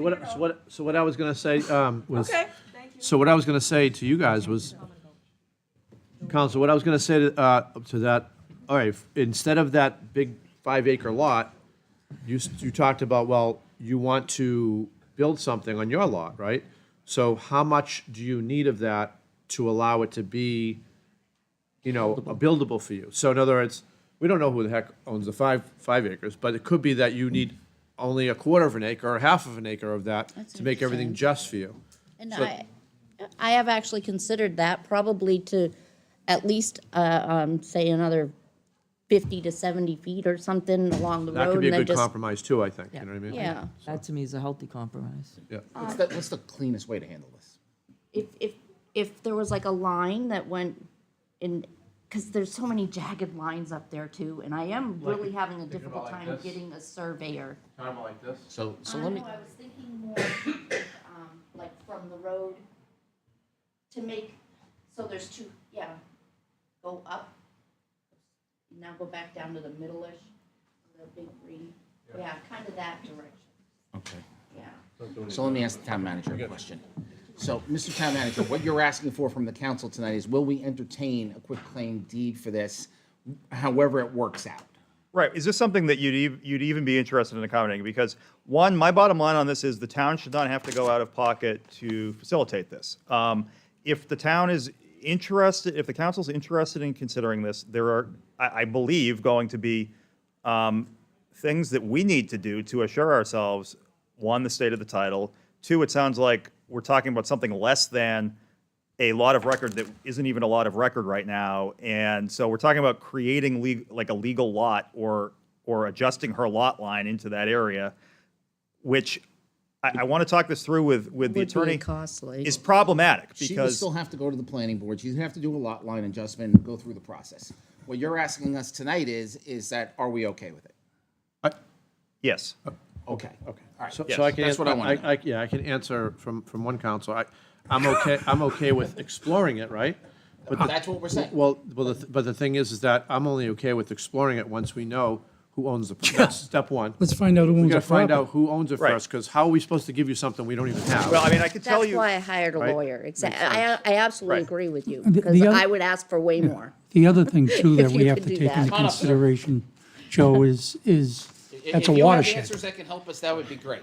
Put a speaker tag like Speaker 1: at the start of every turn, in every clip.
Speaker 1: What, so what, so what I was gonna say, um, was,
Speaker 2: Okay.
Speaker 1: so what I was gonna say to you guys was, Council, what I was gonna say to, uh, to that, all right, instead of that big five acre lot, you, s- you talked about, well, you want to build something on your lot, right? So how much do you need of that to allow it to be, you know, a buildable for you? So in other words, we don't know who the heck owns the five, five acres, but it could be that you need only a quarter of an acre or half of an acre of that
Speaker 3: That's
Speaker 1: to make everything just for you.
Speaker 3: And
Speaker 1: So-
Speaker 3: I, I have actually considered that probably to at least, uh, um, say another fifty to seventy feet or something along the road.
Speaker 1: That could be
Speaker 3: and
Speaker 1: a
Speaker 3: then
Speaker 1: good
Speaker 3: just-
Speaker 1: compromise too, I think, you know what I mean?
Speaker 3: Yeah,
Speaker 4: That to me is a healthy compromise.
Speaker 1: Yeah.
Speaker 5: What's the, what's the cleanest way to handle this?
Speaker 3: if, if, if there was like a line that went in, because there's so many jagged lines up there too, and I am really having a difficult
Speaker 1: like
Speaker 3: time
Speaker 1: this.
Speaker 3: getting a surveyor.
Speaker 1: Kind of like this.
Speaker 5: So, so
Speaker 3: I
Speaker 5: let me,
Speaker 3: know, I was thinking more, um, like from the road to make, so there's two, yeah, go up. Now go back down to the middle-ish, the big green, yeah, kind of that direction,
Speaker 5: okay,
Speaker 3: yeah.
Speaker 5: so let me ask the town manager a question. So, Mr. Town Manager, what you're asking for from the council tonight is, will we entertain a quick claim deed for this, however it works out?
Speaker 6: Right. Is this something that you'd, ev- you'd even be interested in accommodating? Because one, my bottom line on this is the town should not have to go out of pocket to facilitate this. Um, If the town is interested, if the council's interested in considering this, there are, I, I believe, going to be um, things that we need to do to assure ourselves, one, the state of the title, two, it sounds like we're talking about something less than a lot of record that isn't even a lot of record right now. And so we're talking about creating leg- like a legal lot or or adjusting her lot line into that area, which I, I want to talk this through with with the attorney.
Speaker 3: costly.
Speaker 6: Is problematic
Speaker 5: She would
Speaker 6: because
Speaker 5: still have to go to the planning board, she'd have to do a lot line adjustment and go through the process. What you're asking us tonight is, is that, are we okay with it?
Speaker 6: yes,
Speaker 5: Okay, okay, all right.
Speaker 1: So, so I can,
Speaker 5: That's what I wanna
Speaker 1: ans- I, I, yeah, I can answer from, from one council. I, I'm okay, I'm okay with exploring it, right? But the-
Speaker 5: That's what we're saying.
Speaker 1: Well, well, the th- but the thing is, is that I'm only okay with exploring it once we know who owns the, that's step one.
Speaker 7: Let's find out who
Speaker 1: We
Speaker 7: owns
Speaker 1: gotta
Speaker 7: the
Speaker 1: find out
Speaker 7: property.
Speaker 1: who owns it
Speaker 6: Right.
Speaker 1: first, because how are we supposed to give you something we don't even have?
Speaker 6: well, I mean, I could tell
Speaker 3: That's
Speaker 6: you.
Speaker 3: why I hired a lawyer, exactly, I, I absolutely agree with you,
Speaker 7: the
Speaker 3: because
Speaker 7: other-
Speaker 3: I would ask for way more.
Speaker 7: The other thing too that
Speaker 3: If
Speaker 7: we
Speaker 3: you
Speaker 7: have
Speaker 3: could
Speaker 7: to
Speaker 3: do
Speaker 7: take into
Speaker 3: that.
Speaker 7: consideration, Joe, is, is,
Speaker 5: If-
Speaker 7: that's a
Speaker 5: If you have
Speaker 7: watershed.
Speaker 5: answers that can help us, that would be great.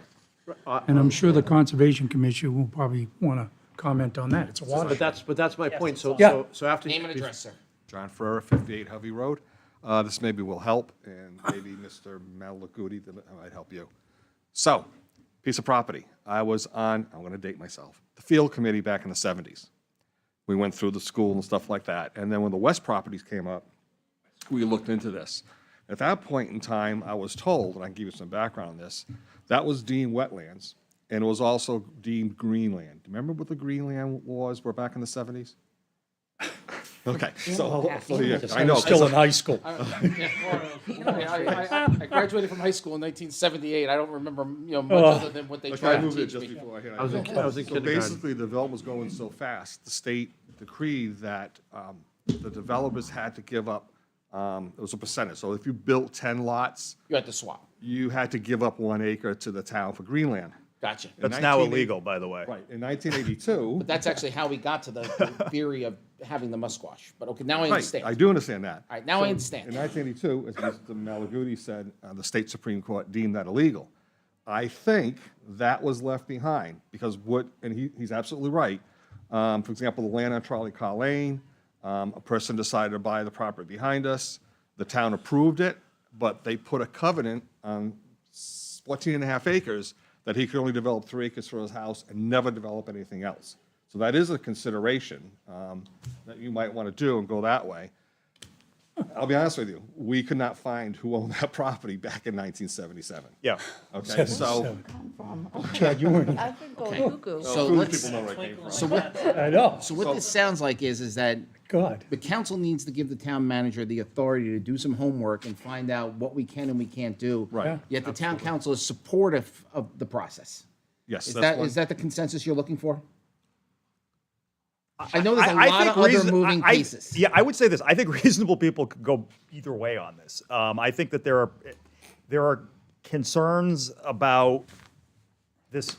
Speaker 7: And I'm sure the Conservation Commission will probably want to comment on that. It's a
Speaker 1: But
Speaker 7: watershed.
Speaker 1: that's, but that's my point, so,
Speaker 7: Yeah.
Speaker 1: so, so after.
Speaker 5: Name and address, sir.
Speaker 8: John Ferrera, 58 Hovey Road. Uh, This maybe will help, and maybe Mr. Malaguti that might help you. So, piece of property. I was on, I'm going to date myself, the field committee back in the 70s. We went through the school and stuff like that. And then when the West properties came up, we looked into this. At that point in time, I was told, and I can give you some background on this, that was deemed wetlands, and it was also deemed greenland. Remember what the greenland laws were back in the 70s? Okay, so, so, yeah, I know.
Speaker 7: in high school.
Speaker 5: Yeah, well, I, I- I- I graduated from high school in 1978. I don't remember, you know, much other than what they
Speaker 8: Like, I
Speaker 5: tried to
Speaker 8: moved it
Speaker 5: teach
Speaker 8: just
Speaker 5: me.
Speaker 8: before I
Speaker 1: I was in, I was in
Speaker 8: So
Speaker 1: kindergarten.
Speaker 8: basically, the development was going so fast, the state decreed that um, the developers had to give up, um, it was a percentage. So if you built 10 lots,
Speaker 5: You had to swap.
Speaker 8: you had to give up one acre to the town for greenland.
Speaker 5: Gotcha.
Speaker 8: In
Speaker 6: that's now
Speaker 8: 1980
Speaker 6: illegal, by the way.
Speaker 8: Right, in 1982.
Speaker 5: That's actually how we got to the the theory of having the musquash. But okay, now I
Speaker 8: Right,
Speaker 5: understand.
Speaker 8: I
Speaker 5: All
Speaker 8: do understand that.
Speaker 5: right, now I
Speaker 8: In
Speaker 5: understand.
Speaker 8: 1982, as Mr. Malaguti said, uh, the state Supreme Court deemed that illegal. I think that was left behind because what, and he, he's absolutely right. Um, For example, the land on Trolley Car Lane, um, a person decided to buy the property behind us. The town approved it, but they put a covenant on 14 and a half acres that he could only develop three acres for his house and never develop anything else. So that is a consideration um, that you might want to do and go that way. I'll be honest with you, we could not find who owned that property back in 1977.
Speaker 6: Yeah.
Speaker 8: Okay, so.
Speaker 3: I could go cuckoo.
Speaker 5: So let's,
Speaker 8: know where it came from.
Speaker 5: so what,
Speaker 7: I know,
Speaker 5: so what this sounds like is, is that
Speaker 7: God.
Speaker 5: the council needs to give the town manager the authority to do some homework and find out what we can and we can't do.
Speaker 8: Right.
Speaker 5: Yet the town council is supportive of the process.
Speaker 8: Yes,
Speaker 5: Is
Speaker 8: that's
Speaker 5: that,
Speaker 8: one.
Speaker 5: is that the consensus you're looking for? I know there's a
Speaker 6: I- I
Speaker 5: lot
Speaker 6: think
Speaker 5: of other
Speaker 6: reason-
Speaker 5: moving
Speaker 6: I- I-
Speaker 5: pieces.
Speaker 6: Yeah, I would say this. I think reasonable people could go either way on this. Um, I think that there are there are concerns about this